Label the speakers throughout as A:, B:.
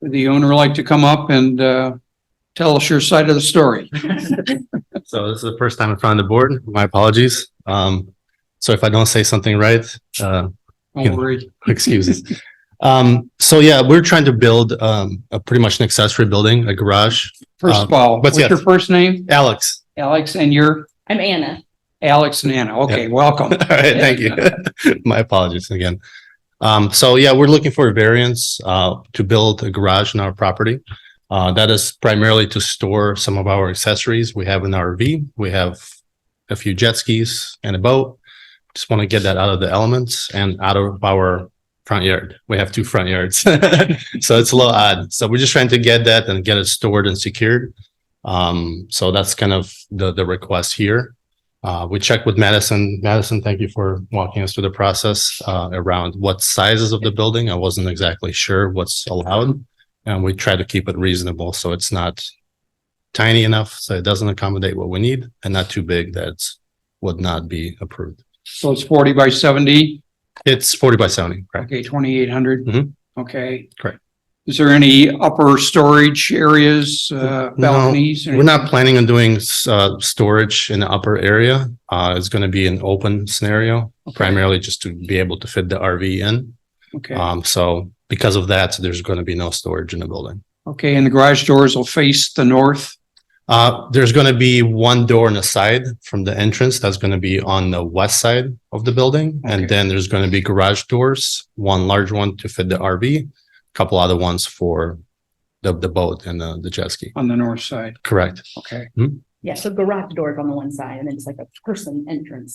A: Would the owner like to come up and uh, tell us your side of the story?
B: So this is the first time in front of the board. My apologies. Um, so if I don't say something right, uh,
A: Don't worry.
B: excuses. Um, so yeah, we're trying to build, um, a pretty much an accessory building, a garage.
A: First of all,
B: Uh, but
A: what's your
B: yes.
A: first name?
B: Alex.
A: Alex, and you're
C: I'm Anna.
A: Alex and Anna. Okay, welcome.
B: All right, thank you. My apologies again. Um, so yeah, we're looking for a variance, uh, to build a garage in our property. Uh, that is primarily to store some of our accessories. We have an RV, we have a few jet skis and a boat. Just want to get that out of the elements and out of our front yard. We have two front yards. So it's a little odd. So we're just trying to get that and get it stored and secured. Um, so that's kind of the, the request here. Uh, we checked with Madison. Madison, thank you for walking us through the process, uh, around what sizes of the building. I wasn't exactly sure what's allowed. And we try to keep it reasonable, so it's not tiny enough, so it doesn't accommodate what we need and not too big that's would not be approved.
A: So it's forty by seventy,
B: It's forty by seventy, correct?
A: okay, twenty-eight hundred?
B: Mhm.
A: Okay.
B: Correct.
A: Is there any upper storage areas, uh, balconies?
B: We're not planning on doing uh storage in the upper area. Uh, it's gonna be an open scenario, primarily just to be able to fit the RV in.
A: Okay,
B: Um, so because of that, there's gonna be no storage in the building.
A: okay, and the garage doors will face the north?
B: Uh, there's gonna be one door on the side from the entrance that's gonna be on the west side of the building.
A: Okay.
B: And then there's gonna be garage doors, one large one to fit the RV, couple other ones for the the boat and the the jet ski.
A: On the north side,
B: Correct.
A: okay.
C: Yeah, so garage doors on the one side and then it's like a person entrance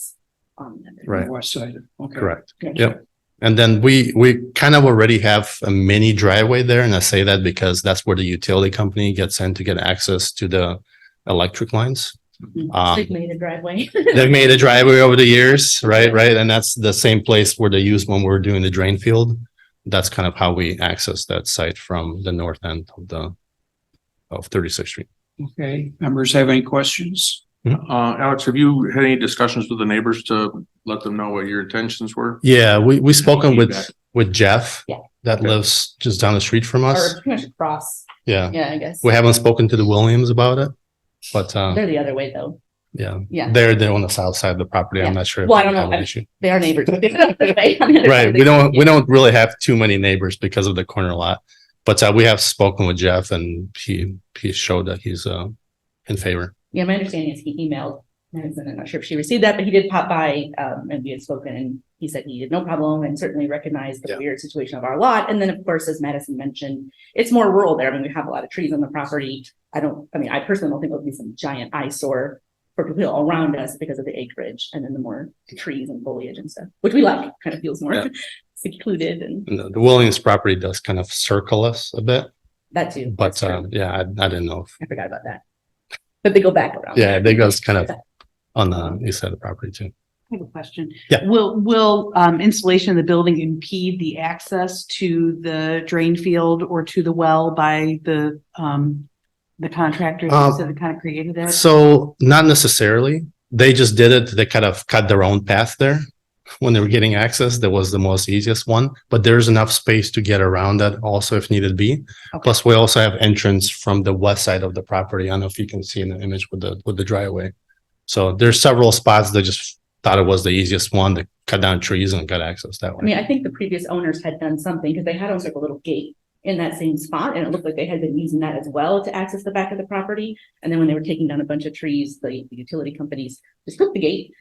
C: on the other.
B: Right.
A: West side, okay.
B: Correct.
C: Yeah.
B: Yep. And then we, we kind of already have a mini driveway there. And I say that because that's where the utility company gets in to get access to the electric lines.
C: Mhm.
B: Um,
C: They've made a driveway.
B: They've made a driveway over the years, right? Right. And that's the same place where they used when we were doing the drain field. That's kind of how we access that site from the north end of the, of 36th Street.
A: Okay, members have any questions?
D: Uh, Alex, have you had any discussions with the neighbors to let them know what your intentions were?
B: Yeah, we, we spoken with,
D: Feedback.
B: with Jeff.
C: Yeah.
B: That lives just down the street from
C: Or
B: us.
C: pretty much across,
B: Yeah.
C: yeah, I guess.
B: Uh, We haven't spoken to the Williams about it, but, uh,
C: They're the other way though.
B: yeah.
C: Yeah,
B: They're, they're on the south side of the property. I'm
C: Yeah.
B: not sure. if
C: Well, I
B: they
C: don't know.
B: have an
C: I-
B: issue.
C: they are neighbors. but they're the other way, on the other
B: Right.
C: side.
B: We don't, we don't really have too many neighbors because of the corner lot. But uh, we have spoken with Jeff and he, he showed that he's, uh, in favor.
C: Yeah, my understanding is he emailed, Madison. I'm not sure if she received that, but he did pop by, um, and we had spoken and he said he had no problem and certainly recognized the
B: Yeah.
C: weird situation of our lot. And then, of course, as Madison mentioned, it's more rural there. I mean, we have a lot of trees on the property. I don't, I mean, I personally don't think it'll be some giant eyesore for people around us because of the acreage and then the more trees and foliage and stuff, which we like, kind of feels more
B: Yeah.
C: secluded and
B: And The the Williams property does kind of circle us a bit,
C: that too. That's
B: but,
C: true.
B: uh, yeah, I, I didn't know. if-
C: I forgot about that. But they go back around.
B: Yeah, they goes kind of on the east side of the property too.
E: I have a question.
B: Yeah.
E: Will, will um, installation of the building impede the access to the drain field or to the well by the, um, the contractors
B: Uh,
E: that kind of created it?
B: So not necessarily. They just did it. They kind of cut their own path there when they were getting access. That was the most easiest one, but there's enough space to get around that also if needed be.
E: Okay.
B: Plus, we also have entrance from the west side of the property. I don't know if you can see in the image with the, with the driveway. So there's several spots that just thought it was the easiest one to cut down trees and got access that
C: I mean,
B: way.
C: I think the previous owners had done something because they had almost like a little gate in that same spot and it looked like they had been using that as well to access the back of the property. And then when they were taking down a bunch of trees, the the utility companies just took the gate.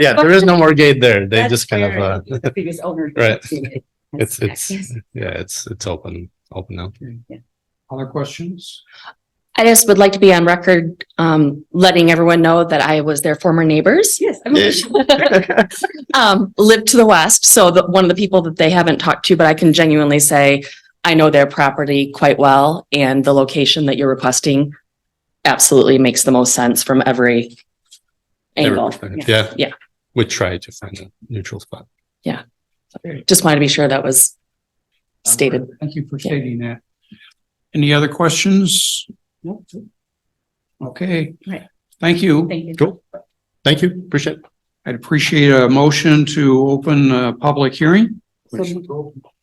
B: Yeah, there is no more gate there. They
C: That's
B: just kind of,
C: where
B: uh,
C: The previous owner.
B: Right.
C: did it.
B: it's, it's,
C: Access.
B: yeah, it's, it's open, open now.
A: Other questions?
F: I just would like to be on record, um, letting everyone know that I was their former neighbors.
C: Yes. I
B: Yeah.
C: mean-
F: Um, lived to the west, so the, one of the people that they haven't talked to, but I can genuinely say I know their property quite well and the location that you're requesting absolutely makes the most sense from every angle.
B: Everything. Yeah.
F: Yeah.
B: We try to find a neutral spot.
F: Just wanted to be sure that was stated.
A: Thank you for stating that. Any other questions? Okay.
C: Right.
A: Thank you.
C: Thank you.
B: Cool. Thank you. Appreciate it.
A: I'd appreciate a motion to open a public hearing.
E: So-